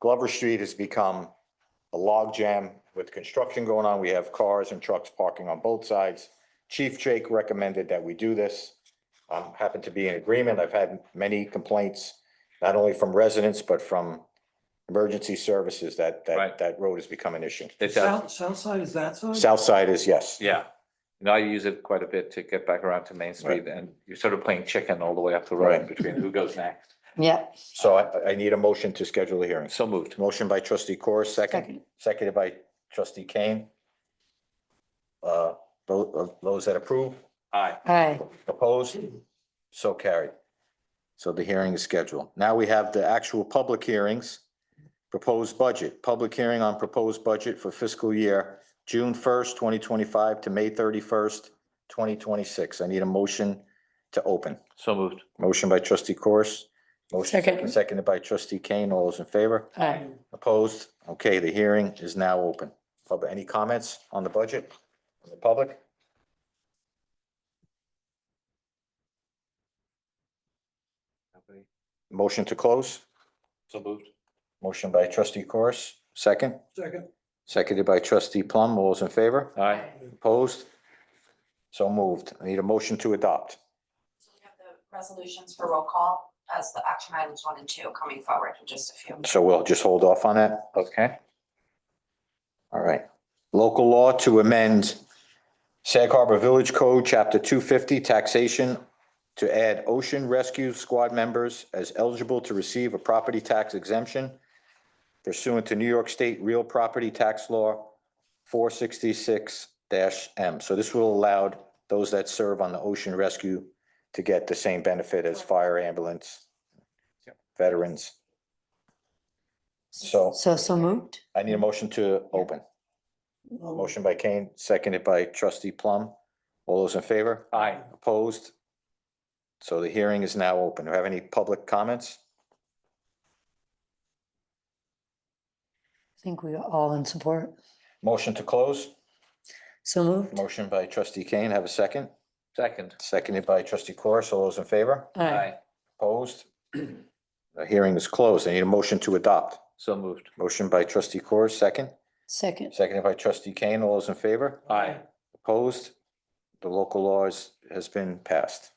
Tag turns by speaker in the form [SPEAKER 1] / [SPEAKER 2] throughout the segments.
[SPEAKER 1] Glover Street has become a logjam with construction going on. We have cars and trucks parking on both sides. Chief Jake recommended that we do this. Um, happen to be in agreement. I've had many complaints, not only from residents, but from emergency services that, that,
[SPEAKER 2] Right.
[SPEAKER 1] that road has become an issue.
[SPEAKER 2] It does,
[SPEAKER 3] South, south side is that side?
[SPEAKER 1] South side is yes.
[SPEAKER 2] yeah. And I use it quite a bit to get back around to Main Street and you're sort of playing chicken all the way up the road
[SPEAKER 1] Right.
[SPEAKER 2] between who goes next.
[SPEAKER 4] Yeah,
[SPEAKER 1] So I, I need a motion to schedule a hearing.
[SPEAKER 2] So moved.
[SPEAKER 1] Motion by trustee Corr, second,
[SPEAKER 4] Second.
[SPEAKER 1] seconded by trustee Kane. Uh, tho- of those that approve,
[SPEAKER 2] Aye.
[SPEAKER 4] aye,
[SPEAKER 1] opposed, so carried. So the hearing is scheduled. Now we have the actual public hearings. Proposed budget, public hearing on proposed budget for fiscal year June first, twenty twenty-five to May thirty-first, twenty twenty-six. I need a motion to open.
[SPEAKER 2] So moved.
[SPEAKER 1] Motion by trustee Corus. Motion
[SPEAKER 4] Second.
[SPEAKER 1] seconded by trustee Kane. All those in favor?
[SPEAKER 4] aye.
[SPEAKER 1] Opposed? Okay, the hearing is now open. Public, any comments on the budget? from The public? Motion to close?
[SPEAKER 2] So moved.
[SPEAKER 1] Motion by trustee Corus, second.
[SPEAKER 3] Second.
[SPEAKER 1] Seconded by trustee Plum. All those in favor?
[SPEAKER 2] Aye.
[SPEAKER 1] Opposed? So moved. I need a motion to adopt.
[SPEAKER 5] So we have the resolutions for roll call as the action items one and two coming forward in just a few.
[SPEAKER 1] So we'll just hold off on that.
[SPEAKER 2] Okay.
[SPEAKER 1] All right. Local law to amend Sag Harbor Village Code, Chapter 250, taxation, to add ocean rescue squad members as eligible to receive a property tax exemption pursuant to New York State Real Property Tax Law 466-M. So this will allow those that serve on the ocean rescue to get the same benefit as fire ambulance veterans. So
[SPEAKER 4] So, so moved?
[SPEAKER 1] I need a motion to open. Motion by Kane, seconded by trustee Plum. All those in favor?
[SPEAKER 2] Aye.
[SPEAKER 1] Opposed? So the hearing is now open. Do we have any public comments?
[SPEAKER 4] I think we are all in support.
[SPEAKER 1] Motion to close?
[SPEAKER 4] So moved?
[SPEAKER 1] Motion by trustee Kane, have a second?
[SPEAKER 2] Second.
[SPEAKER 1] Seconded by trustee Corus. All those in favor?
[SPEAKER 4] Aye,
[SPEAKER 1] Opposed? The hearing is closed. I need a motion to adopt.
[SPEAKER 2] So moved.
[SPEAKER 1] Motion by trustee Corus, second?
[SPEAKER 4] second,
[SPEAKER 1] Seconded by trustee Kane. All those in favor?
[SPEAKER 2] Aye.
[SPEAKER 1] Opposed? The local law is, has been passed.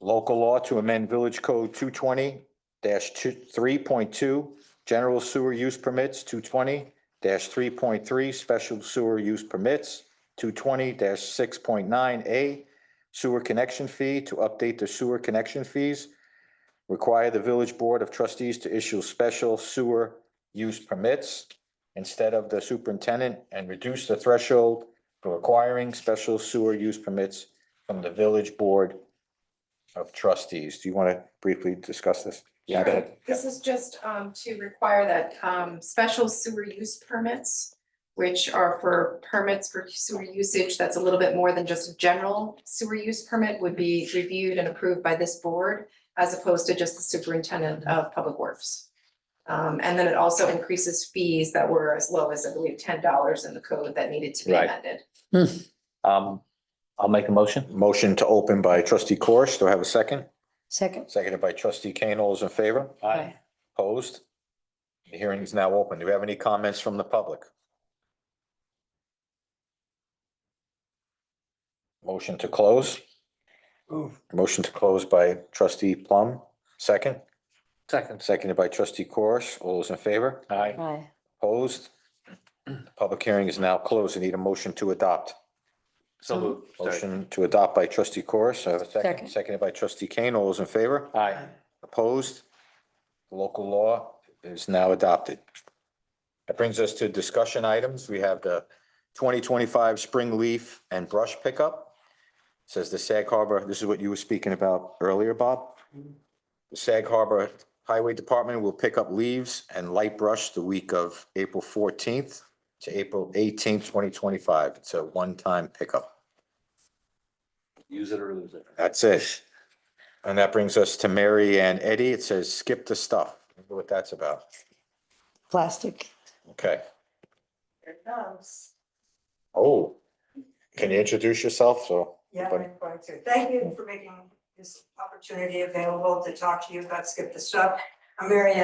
[SPEAKER 1] Local law to amend Village Code two twenty two, three point two, general sewer use permits, two twenty three point three, special sewer use permits, two twenty six point nine A, sewer connection fee to update the sewer connection fees. Require the Village Board of Trustees to issue special sewer use permits instead of the superintendent and reduce the threshold for requiring special sewer use permits from the village board of trustees. Do you want to briefly discuss this?
[SPEAKER 2] Yeah.
[SPEAKER 1] Go ahead.
[SPEAKER 6] This is just um to require that um special sewer use permits, which are for permits for sewer usage that's a little bit more than just a general sewer use permit would be reviewed and approved by this board as opposed to just the superintendent of public works. Um, and then it also increases fees that were as low as, I believe, ten dollars in the code that needed to be
[SPEAKER 2] Right.
[SPEAKER 6] amended.
[SPEAKER 2] Um, I'll make a motion.
[SPEAKER 1] Motion to open by trustee Corish. Do I have a second?
[SPEAKER 4] second,
[SPEAKER 1] Seconded by trustee Kane. All those in favor?
[SPEAKER 4] aye.
[SPEAKER 1] Opposed? The hearing is now open. Do we have any comments from the public? Motion to close.
[SPEAKER 3] Move.
[SPEAKER 1] Motion to close by trustee Plum. Second?
[SPEAKER 2] Second.
[SPEAKER 1] Seconded by trustee Corish. All those in favor?
[SPEAKER 2] Aye.
[SPEAKER 4] Aye,
[SPEAKER 1] Opposed? The Public hearing is now closed. I need a motion to adopt.
[SPEAKER 2] So moved. Sorry.
[SPEAKER 1] Motion to adopt by trustee Corish. I have a second.
[SPEAKER 4] Second.
[SPEAKER 1] Seconded by trustee Kane. All those in favor?
[SPEAKER 2] Aye.
[SPEAKER 1] Opposed? The Local law is now adopted. That brings us to discussion items. We have the twenty twenty-five spring leaf and brush pickup. Says the Sag Harbor, this is what you were speaking about earlier, Bob. The Sag Harbor Highway Department will pick up leaves and light brush the week of April fourteenth to April eighteenth, twenty twenty-five. It's a one-time pickup.
[SPEAKER 2] Use it or lose it.
[SPEAKER 1] That's it. And that brings us to Mary and Eddie. It says skip the stuff. Wonder What that's about.
[SPEAKER 4] plastic,
[SPEAKER 1] Okay.
[SPEAKER 7] Here it comes.
[SPEAKER 1] Oh. Can you introduce yourself? So,
[SPEAKER 7] Yeah,
[SPEAKER 1] Buddy.
[SPEAKER 7] I'm going to. Thank you for making this opportunity available to talk to you about Skip the Stuff. I'm Mary Ann